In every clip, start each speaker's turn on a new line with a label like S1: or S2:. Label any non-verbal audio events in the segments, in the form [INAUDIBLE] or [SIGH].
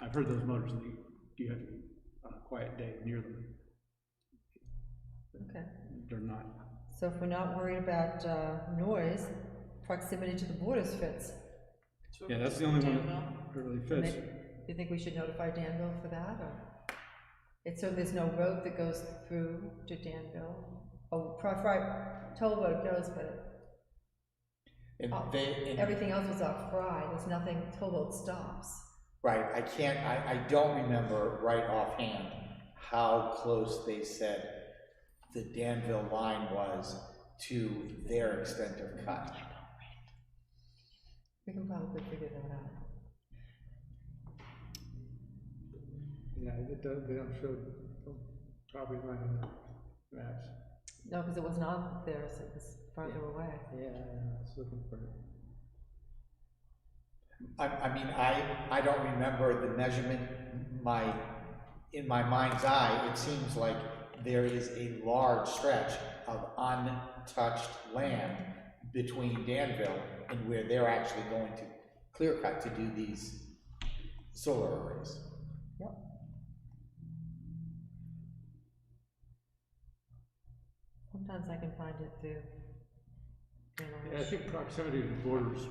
S1: I've heard those motors leak, you have to, be on a quiet day near them,
S2: Okay,
S1: they're not,
S2: so if we're not worried about uh, noise, proximity to the borders fits.
S1: yeah, that's the only one that really fits.
S2: Maybe- You think we should notify Danville for that, or? It's so there's no road that goes through to Danville? Oh, Fri Fri- Toll Road goes, but
S3: And
S2: Oh,
S3: they, and-
S2: everything else is off Fry, there's nothing, Toll Road stops.
S3: right, I can't, I, I don't remember right offhand how close they said the Danville line was to their extent of cut.
S2: We can probably figure that out.
S1: Yeah, it does, they don't show property line on the maps.
S2: No, because it was not there, so it was farther away.
S1: Yeah, I was looking for it.
S3: I, I mean, I, I don't remember the measurement, my, in my mind's eye, it seems like there is a large stretch of untouched land between Danville and where they're actually going to clear cut to do these solar arrays.
S2: Yep. Sometimes I can find it through.
S1: Yeah, I think proximity to the borders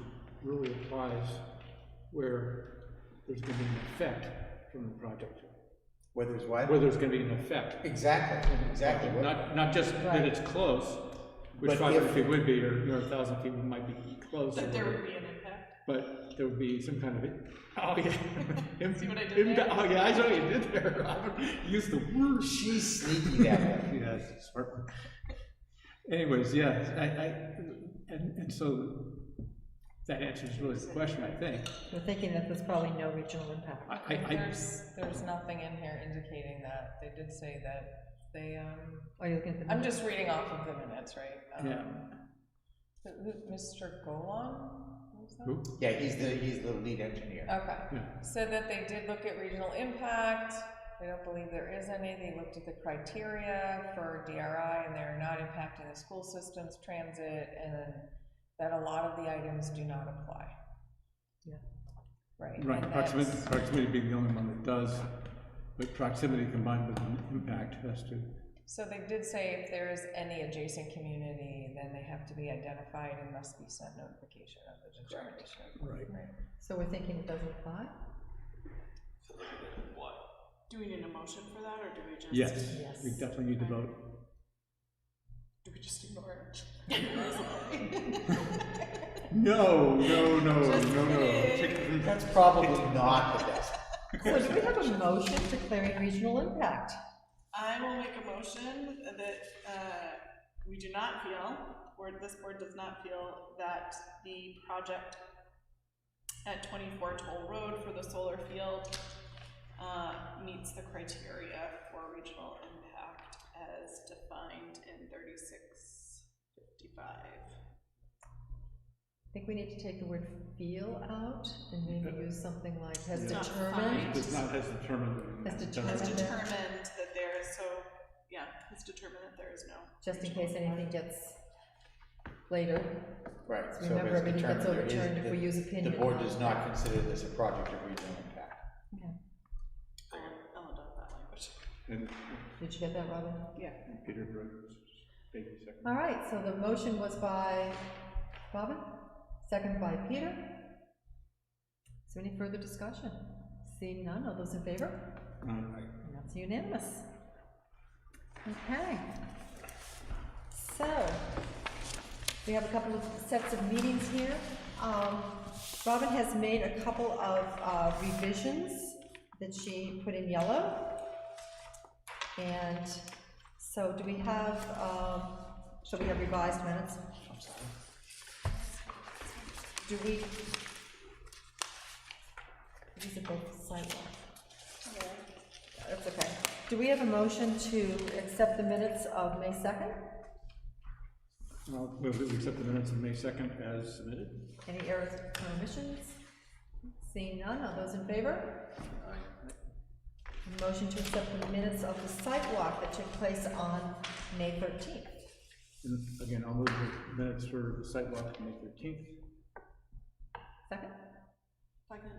S1: really applies where there's gonna be an effect from the project,
S3: Whether it's what?
S1: where there's gonna be an effect.
S3: Exactly, exactly.
S1: Not, not just that it's close, which
S3: But
S1: five
S3: if-
S1: hundred feet would be, or, you know, a thousand feet might be close. or
S4: That there
S1: whatever.
S4: would be an impact.
S1: But there would be some kind of, oh, [LAUGHS] yeah.
S4: See what I did there?
S1: Oh, yeah, I saw what you did there, Robert. Use the word.
S3: She's sneaky that way.
S1: Yes, smart one. Anyways, yes, I, I, and, and so that answers really the question, I think.
S2: We're thinking that there's probably no regional impact.
S1: I, I, I,
S5: There's, there's nothing in here indicating that. They did say that they, um,
S2: Are you looking at the?
S5: I'm just reading off of the minutes, right? Um,
S1: yeah.
S5: who- who- Mr. Golan? Who was that?
S1: Who?
S3: Yeah, he's the, he's the lead engineer.
S5: Okay.
S1: Yeah.
S5: Said that they did look at regional impact. They don't believe there is any. They looked at the criteria for DRI and they're not impacting the school systems, transit, and then that a lot of the items do not apply.
S2: Yeah.
S5: Right.
S1: Right,
S5: and
S1: proximity,
S5: that's-
S1: proximity being the only one that does, but proximity combined with an impact has to,
S5: So they did say if there is any adjacent community, then they have to be identified and must be sent notification of the determination.
S1: Right.
S2: So we're thinking it doesn't apply?
S4: Do we need a motion for that, or do we just?
S1: yes,
S2: Yes.
S1: we definitely need to vote.
S4: Do we just ignore it?
S1: No, no, Oh, no, no, no. Chicken-
S3: That's probably not the best.
S2: So do we have a motion declaring regional impact?
S4: I will make a motion that, uh, we do not feel, or this board does not feel that the project at twenty-four Toll Road for the solar field, uh, meets the criteria for regional impact as defined in thirty-six fifty-five.
S2: I think we need to take the word feel out and maybe use something like has
S1: Yeah.
S4: Not
S2: determined.
S4: fine.
S1: Does not has determined.
S2: Has
S4: Has
S2: Determined.
S4: determined that there is, so, yeah, has determined that there is no.
S2: Just in case anything gets later,
S3: Right, so it's
S2: Remember, everything gets
S3: determined there is-
S2: overturned if
S3: the-
S2: we use opinion.
S3: The board does not consider this a project of regional impact.
S4: I'll, I'll adopt um, that language.
S1: And
S2: did you get that, Robin?
S4: Yeah.
S1: Peter Rhodes, baby second.
S2: All right, so the motion was by Robin, second by Peter. Is there any further discussion? Seeing none, all those in favor?
S1: Uh,
S2: And that's unanimous. Okay. So, we have a couple of sets of meetings here. Um, Robin has made a couple of uh, revisions that she put in yellow. And so do we have, um, shall we have revised minutes?
S3: I'm sorry.
S2: Do we? These are both sidewalk. That's okay. Do we have a motion to accept the minutes of May 2nd?
S1: I'll move that we accept the minutes of May second as submitted.
S2: Any errors or omissions? Seeing none, all those in favor? A Motion to accept the minutes of the sidewalk that took place on May 13th.
S1: And again, I'll move the minutes for the sidewalk on May thirteenth.
S2: Second?
S4: Second.